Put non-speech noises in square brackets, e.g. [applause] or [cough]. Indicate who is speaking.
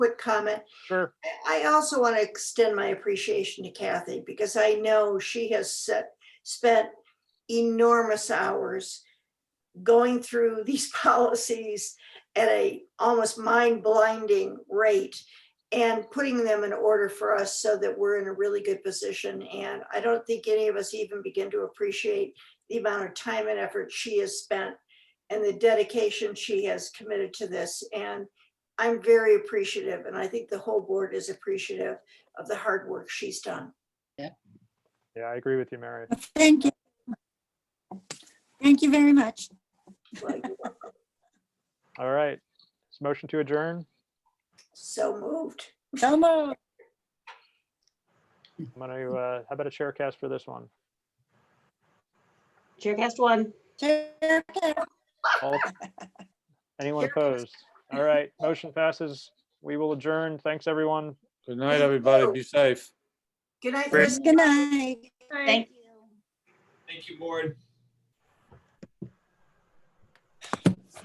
Speaker 1: quick comment?
Speaker 2: Sure.
Speaker 1: I also want to extend my appreciation to Kathy because I know she has set, spent enormous hours going through [laughs] these policies at a almost mind blinding rate and putting them in order for us so that we're in a really good position. And I don't think any of us even begin to appreciate the amount of time and effort she has spent and the dedication she has committed to this. And I'm very appreciative, and I think the whole board is appreciative of the hard work she's done.
Speaker 2: Yeah, I agree with you, Mary.
Speaker 3: Thank you. Thank you very much.
Speaker 1: Like, [laughs]
Speaker 2: All right. It's motion to adjourn.
Speaker 1: So moved.
Speaker 3: So moved.
Speaker 2: I'm gonna, uh, how about a chair cast for this one?
Speaker 4: Chaircast one.
Speaker 3: Chair Carroll.
Speaker 2: All- Anyone opposed? All right, motion passes. We will adjourn. Thanks, everyone.
Speaker 5: Good night, everybody. Be safe.
Speaker 1: Good night,
Speaker 5: Great.
Speaker 1: Liz.
Speaker 3: Good night.
Speaker 4: Thank you.
Speaker 6: Thank you, board.